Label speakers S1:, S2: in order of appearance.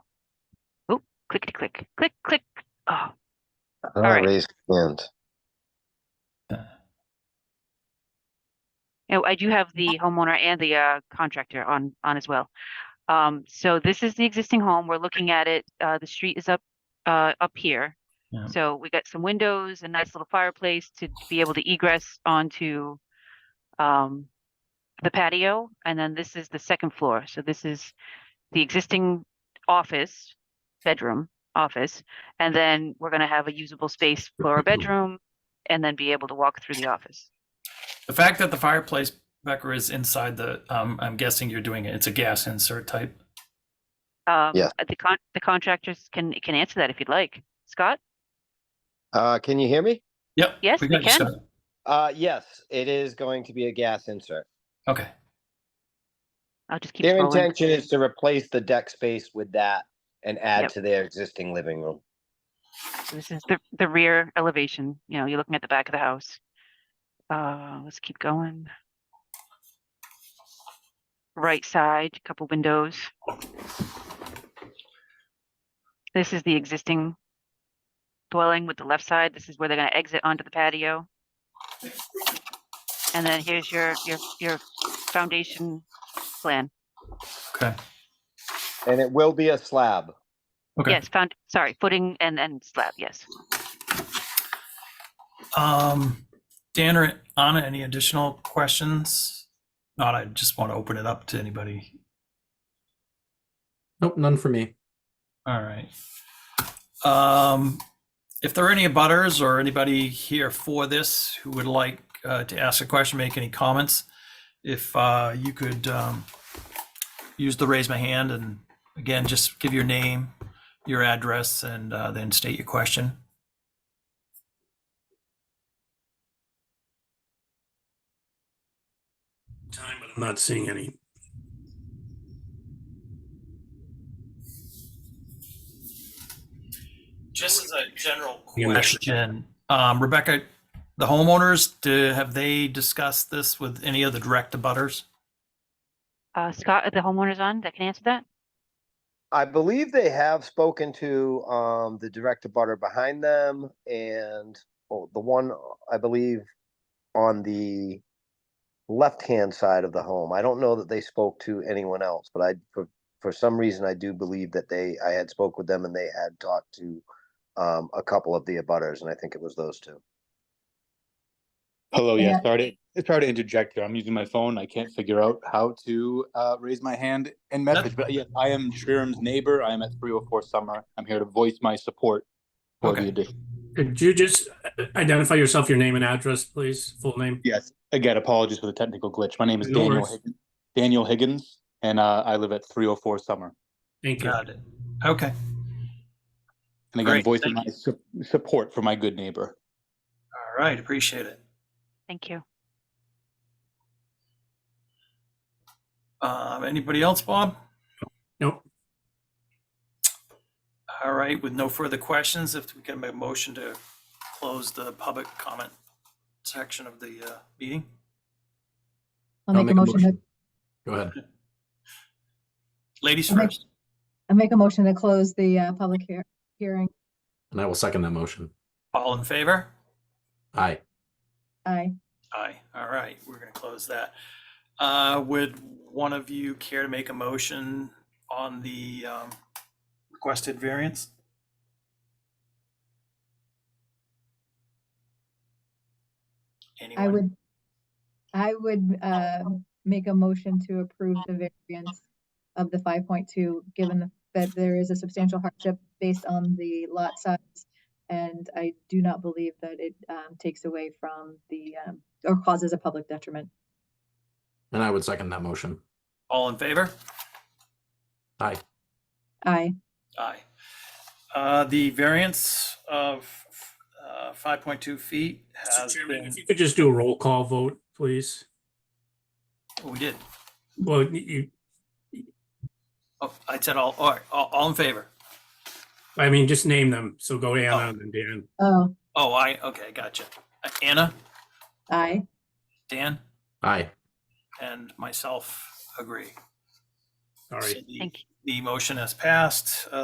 S1: clickety click, click, click. Oh,
S2: I
S1: Alright.
S2: don't raise hand.
S1: No, Oh, I do have the homeowner and the uh contractor on on as well. Um, so this is the existing home. We're looking at it. Uh, the street is up uh up here.
S3: Yeah.
S1: So we got some windows, a nice little fireplace to be able to egress onto um the patio, and then this is the second floor. So this is the existing office, bedroom office, and then we're gonna have a usable space for a bedroom and then be able to walk through the office.
S3: The fact that the fireplace Becker is inside the, um, I'm guessing you're doing it. It's a gas insert type.
S1: Um,
S2: Yes.
S1: The con, the contractors can, can answer that if you'd like. Scott?
S2: Uh, can you hear me?
S3: Yep.
S1: Yes,
S3: got
S1: we
S3: you,
S1: can.
S3: Scott.
S2: Uh, yes, it is going to be a gas insert.
S3: Okay.
S1: I'll just keep
S2: Their
S1: scrolling.
S2: intention is to replace the deck space with that and add
S1: Yep.
S2: to their existing living room.
S1: So This is the, the rear elevation, you know, you're looking at the back of the house. Uh, let's keep going. Right side, couple windows. This is the existing dwelling with the left side. This is where they're gonna exit onto the patio. And then here's your, your, your foundation plan.
S3: Okay.
S2: And it will be a slab.
S3: Okay.
S1: Yes, found, sorry, footing and, and slab, yes.
S3: Um, Dan or Anna, any additional questions? Not, I just want to open it up to anybody.
S4: Nope, none for me.
S3: All right. Um, if there are any abutters or anybody here for this who would like uh, to ask a question, make any comments, if uh, you could um, use the raise my hand and again, just give your name, your address, and uh, then state your question.
S5: time, but I'm not seeing any.
S3: Just as a general
S5: Yeah, Max.
S3: question, um, Rebecca, the homeowners, do, have they discussed this with any of the direct abutters?
S1: Uh, Scott, are the homeowners on that can answer that?
S2: I believe they have spoken to, um, the director butter behind them and, oh, the one, I believe, on the left-hand side of the home. I don't know that they spoke to anyone else, but I, for, for some reason, I do believe that they, I had spoke with them and they had talked to, um, a couple of the abutters, and I think it was those two.
S6: Hello, yeah, sorry to, sorry to interject here. I'm using my phone. I can't figure out how to uh, raise my hand and message, but yes, I am Shriram's neighbor. I am at 304 Summer. I'm here to voice my support for
S3: Okay.
S6: the addition.
S5: Could you just uh, identify yourself, your name and address, please? Full name?
S6: Yes, again, apologies for the technical glitch. My name is
S5: No
S6: Daniel
S5: worries.
S6: Higgins, Daniel Higgins, and uh, I live at 304 Summer.
S5: Thank you.
S3: Got it. Okay.
S6: And
S3: Great,
S6: again, voicing
S3: thank
S6: my su- support for my good neighbor.
S3: All right. Appreciate it.
S1: Thank you.
S3: Um, anybody else, Bob?
S5: Nope.
S3: All right. With no further questions, if we can make a motion to close the public comment section of the uh, meeting.
S7: I'll make a motion, that-
S4: Go ahead.
S3: Ladies
S7: Okay.
S3: first.
S7: I'll make a motion to close the uh, public hear- hearing.
S4: And I will second that motion.
S3: All in favor?
S4: Aye.
S7: Aye.
S3: Aye. All right. We're going to close that. Uh, would one of you care to make a motion on the um, requested variance?
S7: I
S3: Anyone?
S7: would, I would uh, make a motion to approve the variance of the 5.2, given that there is a substantial hardship based on the lot size. And I do not believe that it um, takes away from the, um, or causes a public detriment.
S4: And I would second that motion.
S3: All in favor?
S4: Aye.
S7: Aye.
S3: Aye. Uh, the variance of, uh, five point two feet
S5: Mr.
S3: has
S5: Chairman,
S3: been,
S5: if you could just do a roll call vote, please.
S3: Oh, we did.
S5: Well, you,
S3: Oh, I said all, all, right, all, all in favor.
S5: I mean, just name them. So go Anna and then Dan.
S7: Oh,
S3: Oh, I, okay, gotcha. Uh, Anna,
S7: aye.
S3: Dan,
S4: Aye.
S3: and myself agree.
S5: Sorry.
S3: So the-
S1: Thank you.
S3: The motion has passed. Uh,